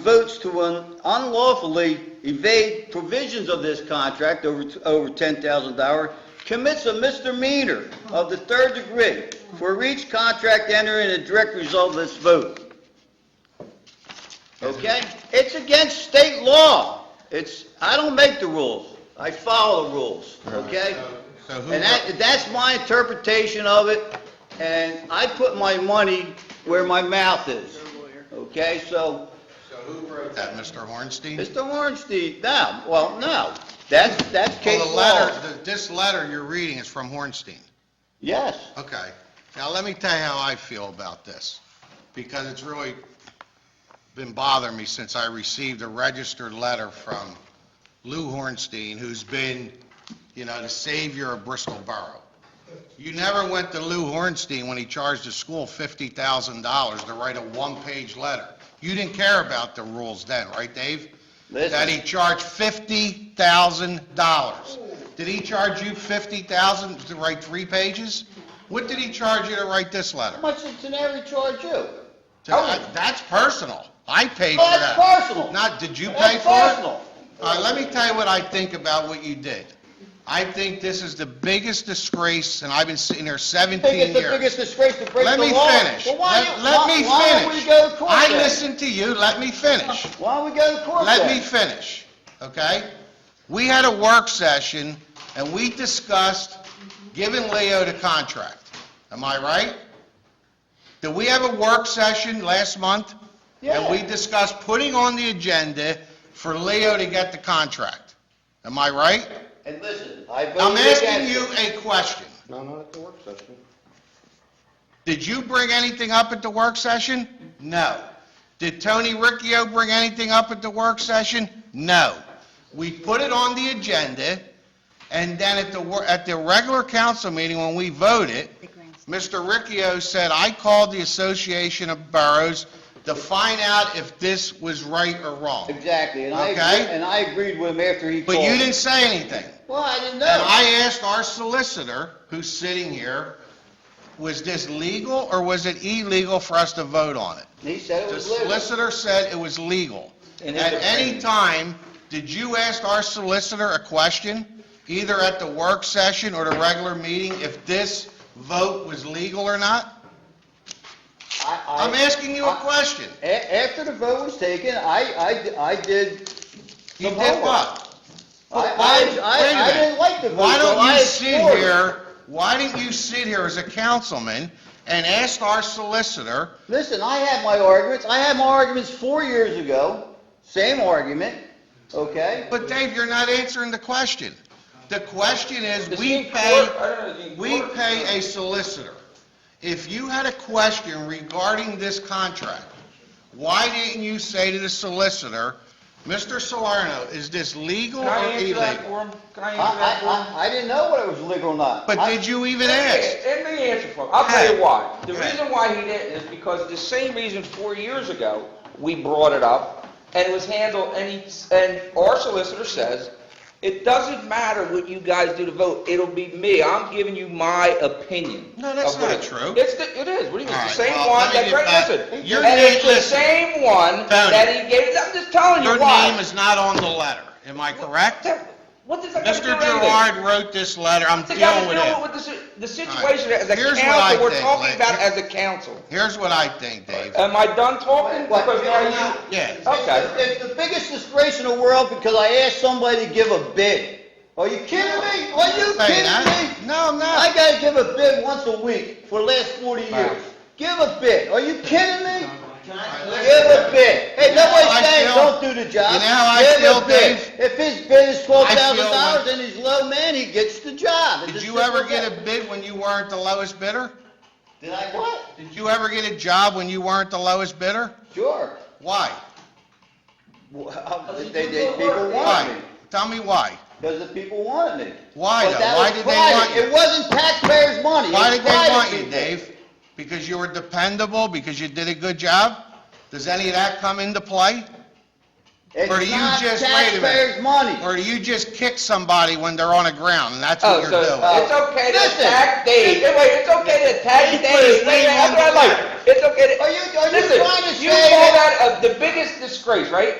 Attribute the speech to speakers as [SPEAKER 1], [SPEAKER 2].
[SPEAKER 1] votes to un- unlawfully evade provisions of this contract over, t- over $10,000 commits a misdemeanor of the third degree for each contract entering a direct result of this vote. Okay? It's against state law. It's, I don't make the rules. I follow the rules, okay?
[SPEAKER 2] So who,
[SPEAKER 1] And that, that's my interpretation of it, and I put my money where my mouth is. Okay, so,
[SPEAKER 2] so who wrote that, Mr. Hornstein?
[SPEAKER 1] Mr. Hornstein, no, well, no, that's, that's
[SPEAKER 2] Well,
[SPEAKER 1] case
[SPEAKER 2] the
[SPEAKER 1] law.
[SPEAKER 2] letter, the- this letter you're reading is from Hornstein.
[SPEAKER 1] Yes,
[SPEAKER 2] Okay. Now, let me tell you how I feel about this, because it's really been bothering me since I received a registered letter from Lou Hornstein, who's been, you know, the savior of Bristol Borough. You never went to Lou Hornstein when he charged the school $50,000 to write a one-page letter. You didn't care about the rules then, right, Dave? that
[SPEAKER 1] listen,
[SPEAKER 2] he charged fifty thousand dollars. Did he charge you fifty thousand to write three pages? What did he charge you to write this
[SPEAKER 1] how
[SPEAKER 2] letter?
[SPEAKER 1] much did Teneri charge you?
[SPEAKER 2] That- That's personal. I paid for
[SPEAKER 1] Oh,
[SPEAKER 2] that.
[SPEAKER 1] that's personal.
[SPEAKER 2] Not, did you pay
[SPEAKER 1] That's
[SPEAKER 2] for it?
[SPEAKER 1] personal.
[SPEAKER 2] All right, let me tell you what I think about what you did. I think this is the biggest disgrace, and I've been sitting here
[SPEAKER 1] I think
[SPEAKER 2] seventeen
[SPEAKER 1] it's the
[SPEAKER 2] years.
[SPEAKER 1] biggest disgrace to break the law.
[SPEAKER 2] Let me finish.
[SPEAKER 1] Well, why,
[SPEAKER 2] Let
[SPEAKER 1] you-
[SPEAKER 2] let
[SPEAKER 1] why-
[SPEAKER 2] me finish.
[SPEAKER 1] why don't we go to court
[SPEAKER 2] I
[SPEAKER 1] then?
[SPEAKER 2] listened to you, let me finish.
[SPEAKER 1] Why don't we go to court
[SPEAKER 2] Let
[SPEAKER 1] then?
[SPEAKER 2] me finish, okay? We had a work session, and we discussed giving Leo the contract. Am I right? Did we have a work session last month? And we
[SPEAKER 1] Yeah.
[SPEAKER 2] discussed putting on the agenda for Leo to get the contract. Am I right?
[SPEAKER 1] And listen, I voted
[SPEAKER 2] I'm
[SPEAKER 1] against it.
[SPEAKER 2] asking you a question.
[SPEAKER 3] No, not at the work session.
[SPEAKER 2] Did you bring anything up at the work session? No. Did Tony Riccio bring anything up at the work session? No. We put it on the agenda, and then at the, wor- at the regular council meeting, when we voted, Mr. Riccio said, "I called the Association of Boroughs to find out if this was right or wrong."
[SPEAKER 1] Exactly, and I, agree-
[SPEAKER 2] Okay.
[SPEAKER 1] and I agreed with him after he called.
[SPEAKER 2] But you didn't say anything.
[SPEAKER 1] Well, I didn't
[SPEAKER 2] And
[SPEAKER 1] know.
[SPEAKER 2] I asked our solicitor, who's sitting here, was this legal or was it illegal for us to vote on it?
[SPEAKER 1] He said it
[SPEAKER 2] The
[SPEAKER 1] was legal.
[SPEAKER 2] solicitor said it was legal.
[SPEAKER 1] In
[SPEAKER 2] At
[SPEAKER 1] his
[SPEAKER 2] any
[SPEAKER 1] opinion.
[SPEAKER 2] time, did you ask our solicitor a question, either at the work session or the regular meeting, if this vote was legal or not?
[SPEAKER 1] I- I-
[SPEAKER 2] I'm asking you a question.
[SPEAKER 1] A- after the vote was taken, I, I, di- I did,
[SPEAKER 2] You
[SPEAKER 1] Some
[SPEAKER 2] did
[SPEAKER 1] homework.
[SPEAKER 2] what?
[SPEAKER 1] I,
[SPEAKER 2] But why-
[SPEAKER 1] I,
[SPEAKER 2] Oh, wait a
[SPEAKER 1] I- I
[SPEAKER 2] minute.
[SPEAKER 1] didn't like the vote.
[SPEAKER 2] Why
[SPEAKER 1] so
[SPEAKER 2] don't
[SPEAKER 1] I
[SPEAKER 2] you sit
[SPEAKER 1] explored it.
[SPEAKER 2] here, why didn't you sit here as a councilman and ask our solicitor,
[SPEAKER 1] Listen, I had my arguments, I had my arguments four years ago, same argument, okay?
[SPEAKER 2] But Dave, you're not answering the question. The question is,
[SPEAKER 1] Is he
[SPEAKER 2] we
[SPEAKER 1] in
[SPEAKER 2] pay, we pay a solicitor. If you had a question regarding this contract, why didn't you say to the solicitor, Mr. Salerno, is this legal
[SPEAKER 4] Can I
[SPEAKER 2] or
[SPEAKER 4] answer that
[SPEAKER 2] illegal?
[SPEAKER 4] for him? Can
[SPEAKER 1] I,
[SPEAKER 4] I answer that for him?
[SPEAKER 1] I, I, I didn't know whether it was legal or not.
[SPEAKER 2] But
[SPEAKER 1] I-
[SPEAKER 2] did you even
[SPEAKER 4] Let me-
[SPEAKER 2] ask?
[SPEAKER 4] Let me answer for him. I'll tell you why. The
[SPEAKER 2] Go ahead.
[SPEAKER 4] reason why he didn't is because the same reason four years ago, we brought it up, and it was handled, and he, and our solicitor says, it doesn't matter what you guys do to vote, it'll be me, I'm giving you my opinion.
[SPEAKER 2] No, that's
[SPEAKER 4] of what
[SPEAKER 2] not
[SPEAKER 4] it-
[SPEAKER 2] true.
[SPEAKER 4] It's, the- it is, what do you mean,
[SPEAKER 2] All
[SPEAKER 4] it's the
[SPEAKER 2] right,
[SPEAKER 4] same
[SPEAKER 2] well,
[SPEAKER 4] one,
[SPEAKER 2] let me
[SPEAKER 4] that,
[SPEAKER 2] get
[SPEAKER 4] right,
[SPEAKER 2] back-
[SPEAKER 4] listen.
[SPEAKER 2] Your
[SPEAKER 4] And
[SPEAKER 2] name-
[SPEAKER 4] it's the
[SPEAKER 2] listen.
[SPEAKER 4] same one
[SPEAKER 2] Tony.
[SPEAKER 4] that he gave, I'm just telling you
[SPEAKER 2] Your
[SPEAKER 4] why.
[SPEAKER 2] name is not on the letter, am I correct?
[SPEAKER 4] What does that have to do
[SPEAKER 2] Mr.
[SPEAKER 4] with anything?
[SPEAKER 2] Gerard wrote this letter, I'm
[SPEAKER 4] They gotta
[SPEAKER 2] dealing with
[SPEAKER 4] deal
[SPEAKER 2] it.
[SPEAKER 4] with the, si- the situation as a
[SPEAKER 2] Here's what I
[SPEAKER 4] council, we're
[SPEAKER 2] think,
[SPEAKER 4] talking
[SPEAKER 2] Lynn.
[SPEAKER 4] about as a council.
[SPEAKER 2] Here's what I think, Dave.
[SPEAKER 4] Am I done talking?
[SPEAKER 1] What?
[SPEAKER 4] Because now you-
[SPEAKER 2] Yeah.
[SPEAKER 4] Okay.
[SPEAKER 1] It's the biggest disgrace in the world because I asked somebody to give a bid. Are you kidding me? Are you
[SPEAKER 2] Say that.
[SPEAKER 1] kidding me?
[SPEAKER 2] No, I'm not.
[SPEAKER 1] I gotta give a bid once a week for the last forty years. Give a bid. Are you kidding me? Give a bid. Hey,
[SPEAKER 2] I
[SPEAKER 1] nobody's saying
[SPEAKER 2] feel-
[SPEAKER 1] don't do the job.
[SPEAKER 2] You know how I
[SPEAKER 1] Give a
[SPEAKER 2] feel,
[SPEAKER 1] bid.
[SPEAKER 2] Dave?
[SPEAKER 1] If his bid is twelve thousand
[SPEAKER 2] I
[SPEAKER 1] dollars
[SPEAKER 2] feel
[SPEAKER 1] and he's low, man, he gets the job. It's
[SPEAKER 2] Did
[SPEAKER 1] as
[SPEAKER 2] you
[SPEAKER 1] simple
[SPEAKER 2] ever
[SPEAKER 1] as
[SPEAKER 2] get
[SPEAKER 1] that.
[SPEAKER 2] a bid when you weren't the lowest bidder?
[SPEAKER 1] Did I what?
[SPEAKER 2] Did you ever get a job when you weren't the lowest bidder?
[SPEAKER 1] Sure.
[SPEAKER 2] Why?
[SPEAKER 1] Well, They, they, people want
[SPEAKER 2] Why?
[SPEAKER 1] me.
[SPEAKER 2] Tell me why.
[SPEAKER 1] Because the people wanted me.
[SPEAKER 2] Why
[SPEAKER 1] But
[SPEAKER 2] though?
[SPEAKER 1] that
[SPEAKER 2] Why
[SPEAKER 1] was
[SPEAKER 2] did they
[SPEAKER 1] private.
[SPEAKER 2] want you?
[SPEAKER 1] It wasn't taxpayers' money.
[SPEAKER 2] Why
[SPEAKER 1] It
[SPEAKER 2] did
[SPEAKER 1] was
[SPEAKER 2] they
[SPEAKER 1] private
[SPEAKER 2] want you,
[SPEAKER 1] people.
[SPEAKER 2] Dave? Because you were dependable, because you did a good job? Does any of that come into play? Or do
[SPEAKER 1] It's
[SPEAKER 2] you
[SPEAKER 1] not
[SPEAKER 2] just- wait a minute.
[SPEAKER 1] taxpayers' money.
[SPEAKER 2] Or do you just kick somebody when they're on the ground, and that's
[SPEAKER 4] Oh,
[SPEAKER 2] what you're
[SPEAKER 4] so
[SPEAKER 2] doing?
[SPEAKER 4] it's okay to
[SPEAKER 1] Listen.
[SPEAKER 4] attack Dave, Hey, wait, it's okay to attack
[SPEAKER 2] He put his
[SPEAKER 4] Dave, wait,
[SPEAKER 2] name
[SPEAKER 4] that's
[SPEAKER 2] on
[SPEAKER 4] what I
[SPEAKER 2] the
[SPEAKER 4] like.
[SPEAKER 2] letter.
[SPEAKER 4] It's okay. to-
[SPEAKER 1] Are you- are you
[SPEAKER 4] Listen,
[SPEAKER 1] trying to
[SPEAKER 4] you
[SPEAKER 1] say
[SPEAKER 4] call
[SPEAKER 1] that-
[SPEAKER 4] that uh, the biggest disgrace, right?